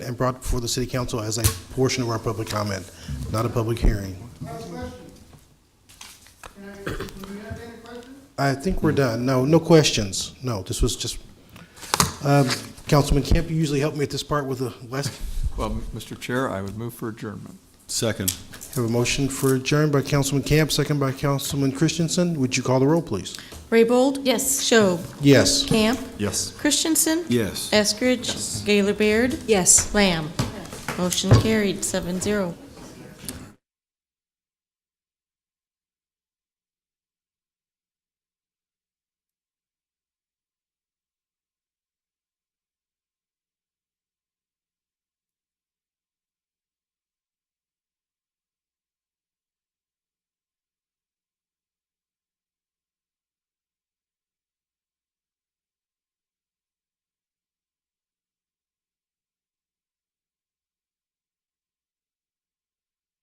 and brought before the city council as a portion of our public comment, not a public hearing. I think we're done. No, no questions. No, this was just, um, Councilman Camp, you usually help me at this part with the last Well, Mr. Chair, I would move for adjournment. Second. Have a motion for adjourned by Councilman Camp, second by Councilman Christensen. Would you call the roll, please? Raybold? Yes. Schob? Yes. Camp? Yes. Christensen? Yes. Eskridge? Gaylor Baird? Yes. Lamb? Motion carried, seven zero.